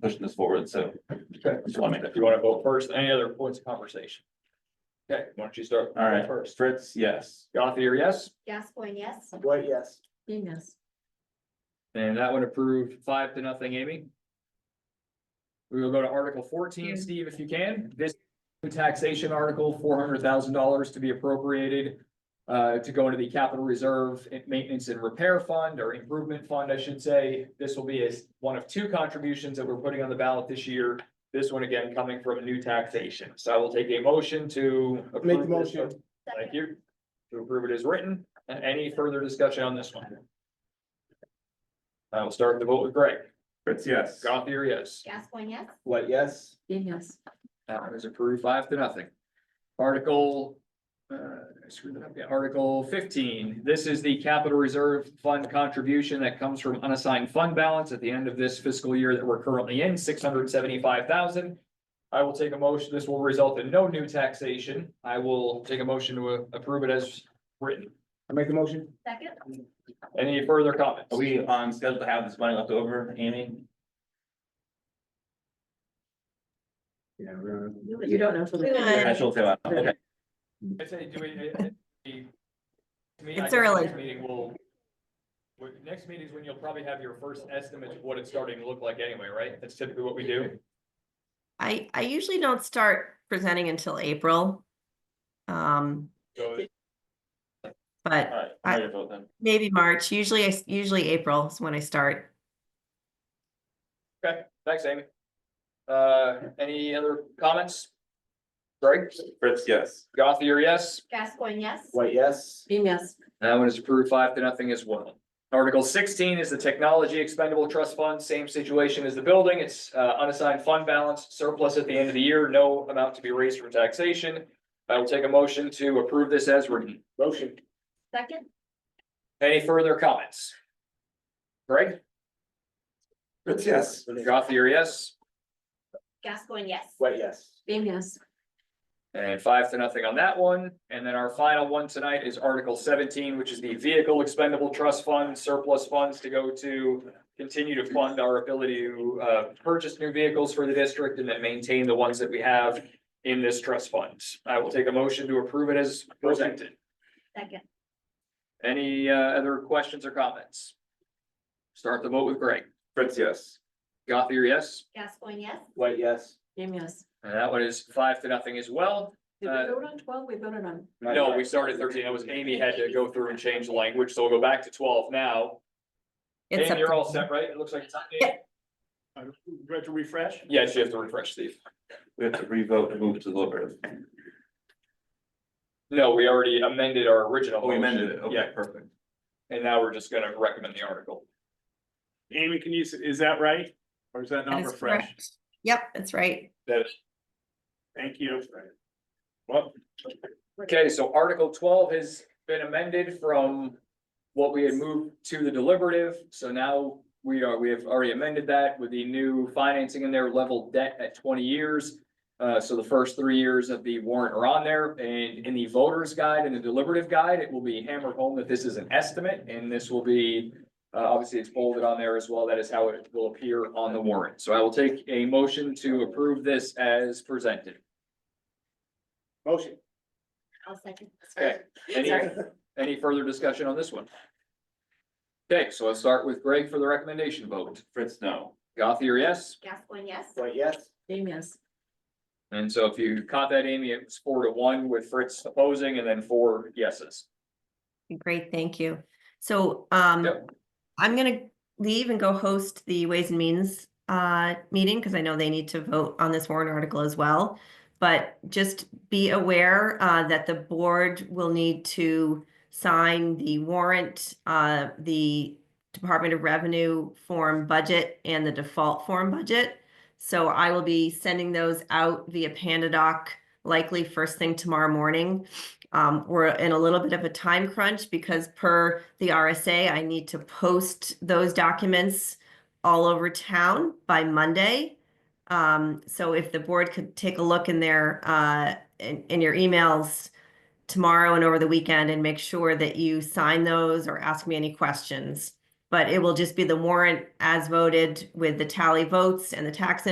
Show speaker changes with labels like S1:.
S1: pushing this forward, so.
S2: Okay.
S1: Just wanna make
S2: If
S1: that-
S2: you wanna go first, any other points of conversation? Okay, why don't you start?
S1: All right,
S2: First,
S1: Fritz, yes.
S2: Gothier, yes,
S3: Gascoigne, yes.
S4: White, yes.
S5: Dean, yes.
S2: and that one approved five to nothing, Amy. We will go to Article fourteen, Steve, if you can, this taxation article, four hundred thousand dollars to be appropriated. Uh, to go into the capital reserve and maintenance and repair fund or improvement fund, I should say. This will be as one of two contributions that we're putting on the ballot this year. This one again coming from new taxation. So I will take a motion to.
S4: Make the
S2: approve this.
S4: motion.
S2: Thank you. To approve it as written, and any further discussion on this one? I will start the vote with Greg.
S1: Fritz, yes.
S2: Gothier, yes.
S3: Gascoigne, yes.
S4: White, yes.
S5: Dean, yes.
S2: That one is approved five to nothing. Article, uh, I screwed that up, yeah, Article fifteen, this is the capital reserve fund contribution that comes from unassigned fund balance at the end of this fiscal year that we're currently in, six hundred seventy-five thousand. I will take a motion, this will result in no new taxation. I will take a motion to uh, approve it as written.
S4: I make the motion.
S3: Second,
S2: Any further comments?
S1: Are we on schedule to have this money left over, Amy?
S4: Yeah, we're.
S5: You don't know for the.
S1: I should say, okay,
S2: I say, do we? uh, uh, the- to me, I
S5: It's
S2: think
S5: early.
S2: next Meeting will. well, Next meeting is when you'll probably have your first estimate of what it's starting to look like anyway, right? That's typically what we do.
S6: I, I usually don't start presenting until April. Um,
S2: So
S6: but
S2: Uh.
S1: all right, I'm ready to vote then.
S6: maybe March, usually, I s- usually April is when I start.
S2: thanks, Amy. Uh, any other comments? Greg,
S1: Fritz, yes.
S2: Gothier, yes?
S3: Gascoigne, yes.
S4: White, yes.
S5: Dean, yes.
S2: That one is approved five to nothing as well. Article sixteen is the Technology Expendable Trust Fund, same situation as the building, it's uh, unassigned fund balance surplus at the end of the year, no amount to be raised from taxation. I will take a motion to approve this as written.
S4: Motion.
S3: Second,
S2: Any further comments? Greg,
S1: Fritz, yes.
S2: Gothier, yes,
S3: Gascoigne, yes.
S4: White, yes.
S5: Dean, yes.
S2: and five to nothing on that one. And then our final one tonight is Article seventeen, which is the Vehicle Expendable Trust Fund surplus funds to go to continue to fund our ability to uh purchase new vehicles for the district and then maintain the ones that we have in this trust fund. I will take a motion to approve it as presented.
S3: Second,
S2: Any uh other questions or comments? Start the vote with Greg.
S1: Fritz, yes.
S2: Gothier, yes?
S3: Gascoigne, yes.
S4: White, yes.
S5: Dean, yes.
S2: And that one is five to nothing as well.
S5: Did
S2: Uh,
S5: we vote on twelve? We voted on.
S2: No, we started thirteen. That was Amy had to go through and change the language, so we'll go back to twelve now.
S6: It's
S2: Amy,
S6: up
S2: you're
S6: to-
S2: all set, right? It looks like it's on. Amy?
S4: Do I have to refresh?
S2: Yes, you have to refresh, Steve.
S1: We have to revote and move to deliberate.
S2: No, we already amended our original.
S1: Oh, we amended it,
S2: motion.
S1: okay, perfect.
S2: Yeah, and now we're just gonna recommend the article.
S7: Amy, can you, s- is that right? Or is that
S6: that
S7: not
S6: is
S7: refreshed?
S6: correct. Yep, that's right.
S7: Thank you. Well,
S2: Okay, so Article twelve has been amended from what we had moved to the deliberative, so now we are, we have already amended that with the new financing in there, level debt at twenty years. Uh, so the first three years of the warrant are on there, and in the voter's guide and the deliberative guide, it will be hammered home that this is an estimate, and this will be uh, obviously it's bolded on there as well, that is how it will appear on the warrant, so I will take a motion to approve this as presented.
S4: Motion.
S3: I'll second.
S2: Okay, any, any further discussion on this one? Okay, so let's start with Greg for the recommendation vote.
S1: Fritz, no.
S2: Gothier, yes?
S3: Gascoigne, yes.
S4: White, yes.
S5: Dean, yes.
S2: And so if you caught that, Amy, it was four to one with Fritz opposing and then four yeses.
S6: Great, thank you. So, um,
S2: Yep.
S6: I'm gonna leave and go host the Ways and Means, uh, meeting, because I know they need to vote on this warrant article as well. But just be aware, uh, that the board will need to sign the warrant, uh, the Department of Revenue form budget and the default form budget. So I will be sending those out via Panda Doc likely first thing tomorrow morning. Um, we're in a little bit of a time crunch because per the RSA, I need to post those documents all over town by Monday. Um, so if the board could take a look in their, uh, in, in your emails tomorrow and over the weekend and make sure that you sign those or ask me any questions But it will just be the warrant as voted with the tally votes and the tax